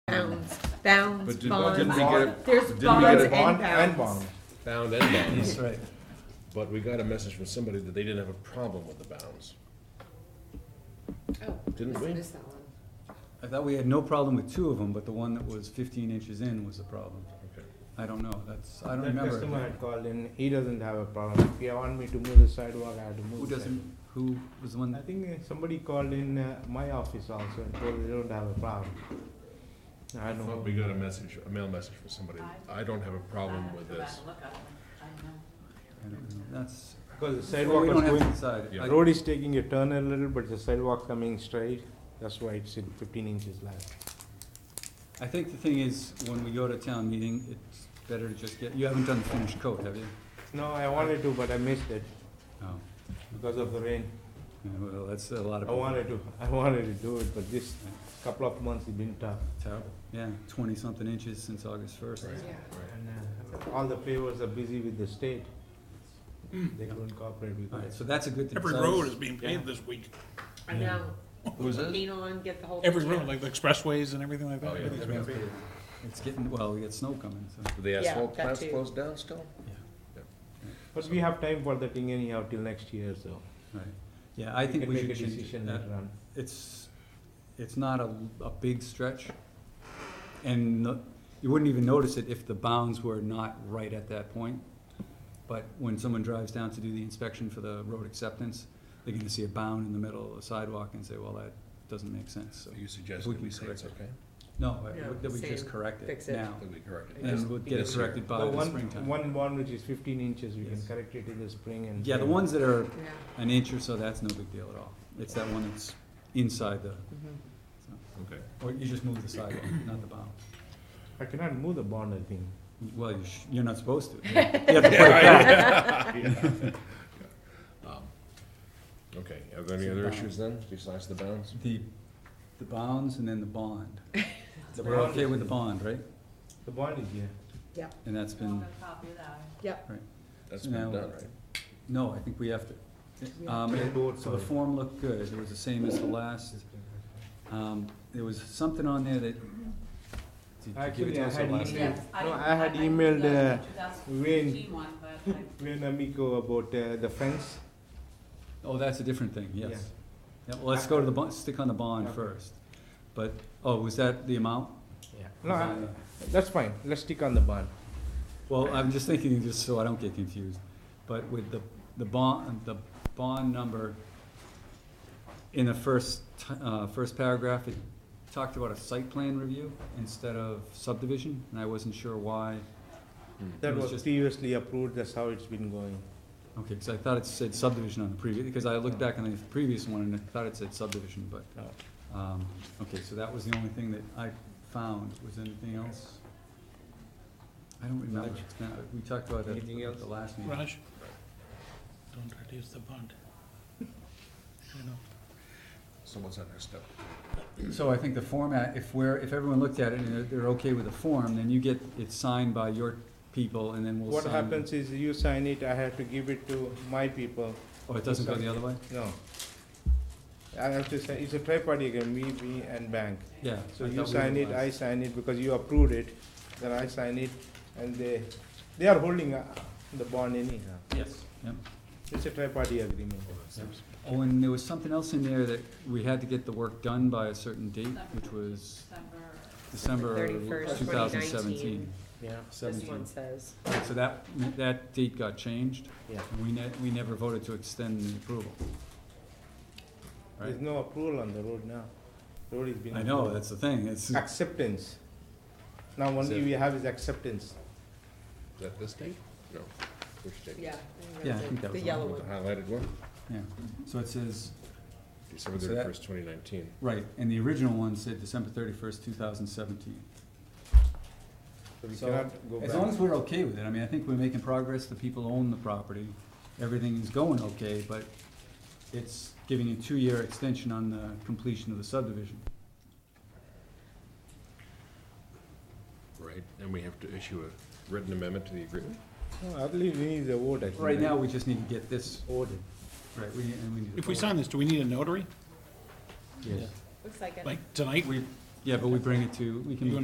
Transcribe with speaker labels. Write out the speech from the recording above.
Speaker 1: bounds,
Speaker 2: But did-
Speaker 1: bonds.
Speaker 2: didn't we get a-
Speaker 1: There's
Speaker 2: didn't we get
Speaker 1: bonds
Speaker 2: a-
Speaker 1: and
Speaker 3: Bond
Speaker 1: bounds.
Speaker 3: and bond.
Speaker 2: bound and bounds,
Speaker 4: That's right.
Speaker 2: but we got a message from somebody that they didn't have a problem with the bounds.
Speaker 5: Oh,
Speaker 2: Didn't
Speaker 5: must have
Speaker 2: we?
Speaker 5: missed that one.
Speaker 4: I thought we had no problem with two of them, but the one that was fifteen inches in was the problem.
Speaker 2: Okay.
Speaker 4: I don't know, that's, I don't
Speaker 3: That customer
Speaker 4: remember.
Speaker 3: had called in, he doesn't have a problem, if you want me to move the sidewalk, I have to move.
Speaker 4: Who
Speaker 3: the sidewalk.
Speaker 4: doesn't, who was the
Speaker 3: I
Speaker 4: one,
Speaker 3: think uh, somebody called in uh, my office also and told they don't have a problem. I
Speaker 2: I
Speaker 3: don't
Speaker 2: thought we
Speaker 3: know,
Speaker 2: got a message, a mail message from somebody, I don't have a problem with this.
Speaker 4: I don't know, that's,
Speaker 3: because the sidewalk
Speaker 4: well, we
Speaker 3: was
Speaker 4: don't have to
Speaker 3: going,
Speaker 4: decide.
Speaker 2: Yeah.
Speaker 4: I-
Speaker 3: the road is taking a turn a little, but the sidewalk coming straight, that's why it's in fifteen inches left.
Speaker 4: I think the thing is, when we go to town meeting, it's better to just get, you haven't done the finished coat, have you?
Speaker 3: No, I wanted to, but I missed it
Speaker 4: No.
Speaker 3: because of the rain.
Speaker 4: Yeah, Well, that's a lot of.
Speaker 3: I wanted to, I wanted to do it, but this couple of months it's been tough.
Speaker 4: Terrible, yeah, twenty-something inches since August first.
Speaker 2: Right.
Speaker 5: Yeah.
Speaker 3: And uh, all the pavers are busy with the state. They couldn't cooperate with
Speaker 4: All right,
Speaker 3: us.
Speaker 4: so that's a good thing.
Speaker 6: Every
Speaker 4: So-
Speaker 6: road is being paved this week.
Speaker 1: I know,
Speaker 2: Who's
Speaker 1: lean on, get the whole.
Speaker 6: Every road, like the expressways and everything like
Speaker 2: Oh,
Speaker 6: that.
Speaker 2: yeah.
Speaker 6: everything's being paved.
Speaker 4: It's getting, well, we got snow coming, so.
Speaker 2: Do the
Speaker 1: Yeah,
Speaker 2: asphalt
Speaker 1: that
Speaker 2: plants
Speaker 1: too.
Speaker 2: closed down still?
Speaker 3: But we have time for the thing anyhow till next year, so.
Speaker 4: Right, yeah, I think
Speaker 3: can
Speaker 4: we
Speaker 3: make
Speaker 4: should
Speaker 3: a
Speaker 4: change it.
Speaker 3: decision
Speaker 4: Uh,
Speaker 3: later on.
Speaker 4: It's, it's not a, a big stretch, and no- you wouldn't even notice it if the bounds were not right at that point. But when someone drives down to do the inspection for the road acceptance, they're gonna see a bound in the middle of the sidewalk and say, well, that doesn't make sense, so.
Speaker 2: So you suggest
Speaker 4: We
Speaker 2: that we
Speaker 4: can
Speaker 2: say it's okay?
Speaker 4: No, I-
Speaker 1: Yeah,
Speaker 4: that we just
Speaker 1: same.
Speaker 4: correct
Speaker 1: Fix
Speaker 4: it
Speaker 1: it.
Speaker 4: now,
Speaker 2: That we correct it?
Speaker 4: and we'll get it
Speaker 2: This year.
Speaker 4: corrected by
Speaker 3: The
Speaker 4: the
Speaker 3: one,
Speaker 4: springtime.
Speaker 3: one bond which is fifteen inches, we can
Speaker 4: Yes.
Speaker 3: correct it in the spring and.
Speaker 4: Yeah, the ones that are
Speaker 1: Yeah.
Speaker 4: an inch or so, that's no big deal at all. It's that one that's inside the,
Speaker 2: Okay.
Speaker 4: or you just move the sidewalk, not the bound.
Speaker 3: I cannot move the bond, I think.
Speaker 4: Well, you sh- you're not supposed to. You have to put it back.
Speaker 2: Um, Okay, are there any other issues then, besides the bounds?
Speaker 4: The, the bounds and then the bond.
Speaker 3: The
Speaker 4: We're
Speaker 3: bond
Speaker 4: okay
Speaker 3: is-
Speaker 4: with the bond, right?
Speaker 3: The bond is here.
Speaker 4: And that's been,
Speaker 1: Yep,
Speaker 2: That's been
Speaker 4: No.
Speaker 2: done, right?
Speaker 4: no, I think we have to. Um, it- so the form looked good. It was the same as the last. Um, there was something on there that. did you give it
Speaker 3: Actually,
Speaker 4: to
Speaker 3: I
Speaker 4: us the
Speaker 3: had
Speaker 4: last
Speaker 3: emailed,
Speaker 4: time?
Speaker 3: no, I had emailed uh, Wayne,
Speaker 5: one, but
Speaker 3: Wayne Amico about uh, the fence.
Speaker 4: Oh, that's a different thing, yes. Yeah, well, let's go to the bond, stick on the bond
Speaker 3: Okay.
Speaker 4: first. But, oh, was that the amount?
Speaker 3: No, I- that's fine, let's stick on the bond.
Speaker 4: Well, I'm just thinking, just so I don't get confused, but with the, the bond, the bond number, in the first, ti- uh, first paragraph, it talked about a site plan review instead of subdivision, and I wasn't sure why.
Speaker 3: That
Speaker 4: It was
Speaker 3: was
Speaker 4: just-
Speaker 3: previously approved, that's how it's been going.
Speaker 4: Okay, because I thought it said subdivision on the previous, because I looked back on the previous one and I thought it said subdivision, but,
Speaker 3: Oh.
Speaker 4: um, okay, so that was the only thing that I found. Was there anything else? I don't remember. It's kinda- We talked about it
Speaker 3: Anything
Speaker 4: at
Speaker 3: else?
Speaker 4: the last meeting.
Speaker 6: Raj, don't reduce the bond. You know,
Speaker 2: So what's that next step?
Speaker 4: So I think the format, if we're, if everyone looked at it and they're, they're okay with the form, then you get it signed by your people and then we'll
Speaker 3: What
Speaker 4: sign.
Speaker 3: happens is you sign it, I have to give it to my people,
Speaker 4: Oh, it doesn't go the other way?
Speaker 3: no. I have to say, it's a tri-party agreement, me, me and bank.
Speaker 4: Yeah.
Speaker 3: So
Speaker 4: I
Speaker 3: you
Speaker 4: thought we
Speaker 3: sign it, I
Speaker 4: realized.
Speaker 3: sign it, because you approved it, then I sign it, and they, they are holding uh, the bond anyhow.
Speaker 4: Yes, yep.
Speaker 3: It's a tri-party agreement.
Speaker 4: Oh, and there was something else in there that we had to get the work done by a certain date, which was December
Speaker 1: December 31st,
Speaker 4: two thousand seventeen.
Speaker 1: 2019.
Speaker 3: Yeah.
Speaker 1: this one says.
Speaker 4: So that, that date got changed.
Speaker 3: Yeah.
Speaker 4: We ne- we never voted to extend the approval.
Speaker 3: There's
Speaker 4: Right?
Speaker 3: no approval on the road now. Road is being.
Speaker 4: I know, that's the thing, it's,
Speaker 3: Acceptance. Now only
Speaker 2: So-
Speaker 3: we have is acceptance.
Speaker 2: Is that this date? No, which date?
Speaker 1: Yeah.
Speaker 4: Yeah, I think that
Speaker 1: The
Speaker 4: was
Speaker 1: yellow one.
Speaker 2: The highlighted one,
Speaker 4: yeah. So it says,
Speaker 2: December
Speaker 4: So that-
Speaker 2: thirty-first, twenty nineteen.
Speaker 4: Right, and the original one said December thirty-first, two thousand seventeen.
Speaker 3: So we
Speaker 4: So,
Speaker 3: cannot go back.
Speaker 4: As long as we're okay with it, I mean, I think we're making progress, the people own the property, everything is going okay, but it's giving a two-year extension on the completion of the subdivision.
Speaker 2: Right, and we have to issue a written amendment to the agreement?
Speaker 3: No, I believe we need the vote, I think.
Speaker 4: Right now, we just need to get this,
Speaker 3: Voted.
Speaker 4: right, we, and we need to.
Speaker 6: If we
Speaker 4: vote.
Speaker 6: sign this, do we need a notary,
Speaker 3: Yes.
Speaker 1: Looks like it.
Speaker 6: like tonight?
Speaker 4: We, yeah, but we bring it to, we can.
Speaker 6: You